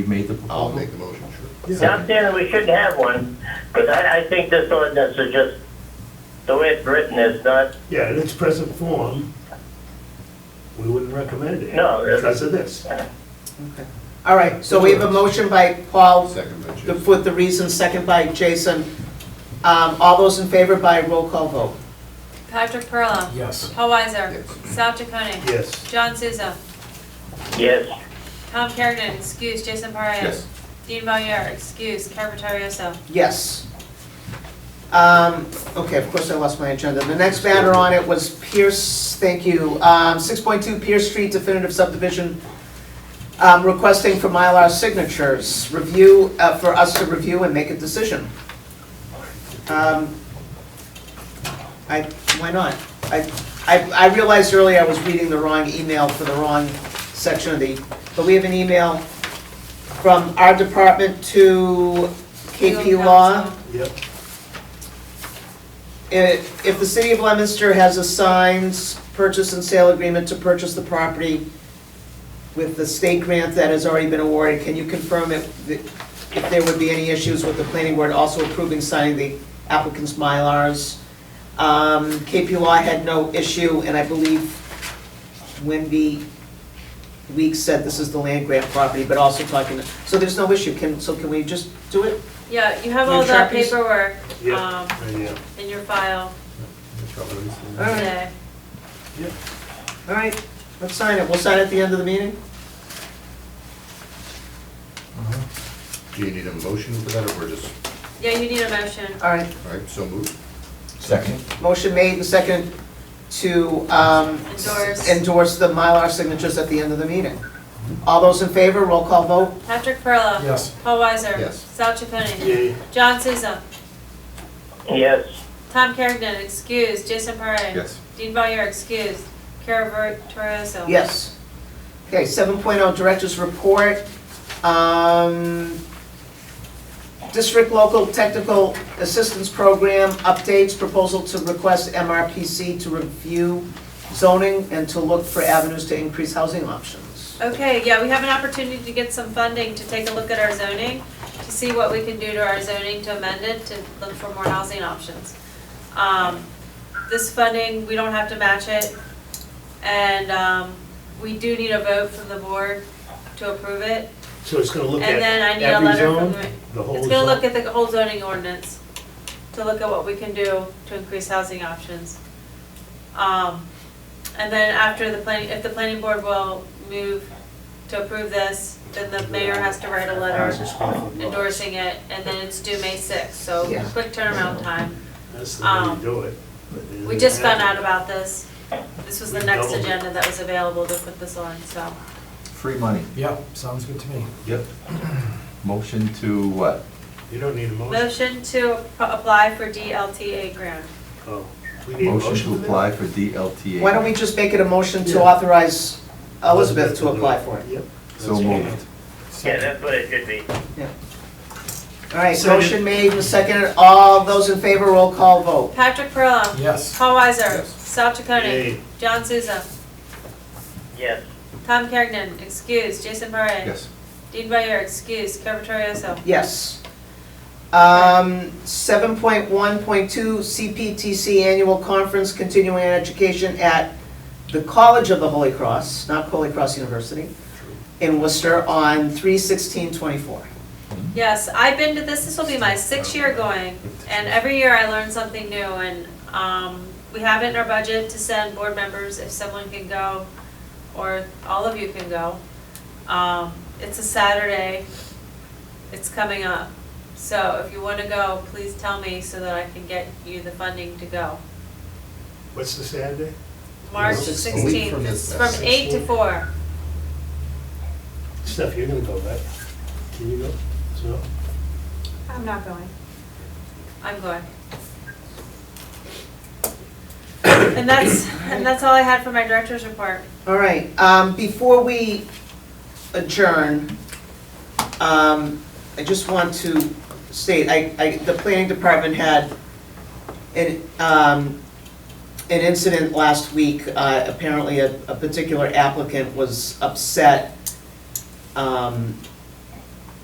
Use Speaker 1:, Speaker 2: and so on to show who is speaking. Speaker 1: You made the
Speaker 2: I'll
Speaker 1: proposal?
Speaker 2: make the motion, sure.
Speaker 3: Not saying that we shouldn't have one, but I, I think this ordinance is just, the way it's written is not,
Speaker 4: Yeah, in its present form, we wouldn't recommend it.
Speaker 3: No, it's-
Speaker 4: Because of this.
Speaker 5: Okay. All right, so we have a motion by Paul
Speaker 2: Second by
Speaker 5: the-
Speaker 2: Jason.
Speaker 5: with the reason, second by Jason. Um, All those in favor by roll call vote?
Speaker 6: Patrick Perla.
Speaker 7: Yes.
Speaker 6: Paul Weiser.
Speaker 2: Yes.
Speaker 6: Sal Chaconi.
Speaker 4: Yes.
Speaker 6: John Souza.
Speaker 3: yes,
Speaker 6: Tom Kerrigan, excuse. Jason Parra.
Speaker 2: Yes.
Speaker 6: Dean Valier, excuse. Carver Torioso.
Speaker 5: Yes. Um, Okay, of course I lost my agenda. The next banner on it was Pierce, thank you, um, 6.2 Pierce Street definitive subdivision, um, requesting for Mylar signatures, review, uh, for us to review and make a decision. Um, I, why not? I, I I realized earlier I was reading the wrong email for the wrong section of the, but we have an email from our department to KP
Speaker 6: Legal
Speaker 5: Law.
Speaker 6: counsel.
Speaker 4: Yep.
Speaker 5: If if the city of Leominster has a signed purchase and sale agreement to purchase the property with the state grant that has already been awarded, can you confirm if, the- if there would be any issues with the planning board also approving signing the applicant's Mylars? Um, KP Law had no issue, and I believe Wendy Weeks said this is the land grant property, but also talking, so there's no issue, can, so can we just do it?
Speaker 6: Yeah, you have all
Speaker 5: Your
Speaker 6: the
Speaker 5: copies?
Speaker 6: paperwork
Speaker 4: Yeah.
Speaker 6: um,
Speaker 4: Right, yeah.
Speaker 6: in your file
Speaker 5: All right.
Speaker 6: today.
Speaker 5: All right, let's sign it, we'll sign it at the end of the meeting?
Speaker 2: Do you need a motion for that, or we're just,
Speaker 6: Yeah, you need a motion.
Speaker 5: All right,
Speaker 2: all right, so moved?
Speaker 7: Second.
Speaker 5: Motion made and second to um,
Speaker 6: Endorse.
Speaker 5: endorse the Mylar signatures at the end of the meeting. All those in favor, roll call vote?
Speaker 6: Patrick Perla.
Speaker 7: Yes.
Speaker 6: Paul Weiser.
Speaker 2: Yes.
Speaker 6: Sal Chaconi.
Speaker 4: Yay.
Speaker 6: John Souza.
Speaker 3: yes,
Speaker 6: Tom Kerrigan, excuse. Jason Parra.
Speaker 1: Yes.
Speaker 6: Dean Valier, excuse. Carver Torioso.
Speaker 5: Yes. Okay, 7.0 Director's Report. Um, District Local Technical Assistance Program updates, proposal to request MRPC to review zoning and to look for avenues to increase housing options.
Speaker 6: Okay, yeah, we have an opportunity to get some funding to take a look at our zoning, to see what we can do to our zoning to amend it, to look for more housing options. Um, This funding, we don't have to match it, and um, we do need a vote from the board to approve it.
Speaker 4: So it's gonna look
Speaker 6: And then I
Speaker 4: at
Speaker 6: need a
Speaker 4: every
Speaker 6: letter
Speaker 4: zone,
Speaker 6: from the,
Speaker 4: the whole
Speaker 6: it's gonna look
Speaker 4: zone.
Speaker 6: at the whole zoning ordinance, to look at what we can do to increase housing options. Um, And then after the planning, if the planning board will move to approve this, then the mayor has to write a letter endorsing it, and then it's due May sixth, so
Speaker 5: Yeah.
Speaker 6: quick turnaround time.
Speaker 4: That's the way
Speaker 6: um,
Speaker 4: you do it. but it
Speaker 6: We
Speaker 4: doesn't
Speaker 6: just found out
Speaker 4: happen.
Speaker 6: about this, this was the
Speaker 4: We
Speaker 6: next
Speaker 4: doubled it.
Speaker 6: agenda that was available to put this on, so.
Speaker 1: Free money.
Speaker 7: Yeah, sounds good to me.
Speaker 4: Yep,
Speaker 1: Motion to what?
Speaker 4: you don't need a motion.
Speaker 6: Motion to ap- apply for DLTA grant.
Speaker 4: Oh, we need a
Speaker 1: Motion
Speaker 4: motion
Speaker 1: to
Speaker 4: for that?
Speaker 1: apply for DLTA.
Speaker 5: Why don't we just make it a motion to
Speaker 4: Yeah.
Speaker 5: authorize Elizabeth to apply for it?
Speaker 4: Yep.
Speaker 1: So moved.
Speaker 3: yeah, that's what it should be.
Speaker 5: All right,
Speaker 4: Second.
Speaker 5: motion made and seconded. All those in favor, roll call vote.
Speaker 6: Patrick Perla.
Speaker 7: Yes.
Speaker 6: Paul Weiser.
Speaker 2: Yes.
Speaker 6: Sal Chaconi.
Speaker 4: Yay.
Speaker 6: John Souza.
Speaker 3: Yes,
Speaker 6: Tom Kerrigan, excuse. Jason Parra.
Speaker 1: Yes.
Speaker 6: Dean Valier, excuse. Carver Torioso.
Speaker 5: Yes. Um, 7.1.2 CPTC Annual Conference Continuing Education at the College of the Holy Cross, not Holy Cross University, in Worcester on 3/16/24.
Speaker 6: Yes, I've been to this, this will be my sixth year going, and every year I learn something new, and, um, we have it in our budget to send board members if someone can go, or all of you can go. Um, it's a Saturday, it's coming up, so if you wanna go, please tell me so that I can get you the funding to go.
Speaker 4: What's the Saturday?
Speaker 6: March
Speaker 2: Well, it's a week
Speaker 6: sixteenth,
Speaker 2: from
Speaker 6: it's
Speaker 2: this-
Speaker 6: from eight to four.
Speaker 4: Steph, you're gonna go, right? Can you go? So,
Speaker 6: I'm not going. I'm going. And that's, and that's all I had for my director's report.
Speaker 5: All right, um, before we adjourn, um, I just want to state, I, I, the planning department had an, um, an incident last week, uh, apparently a, a particular applicant was upset, um,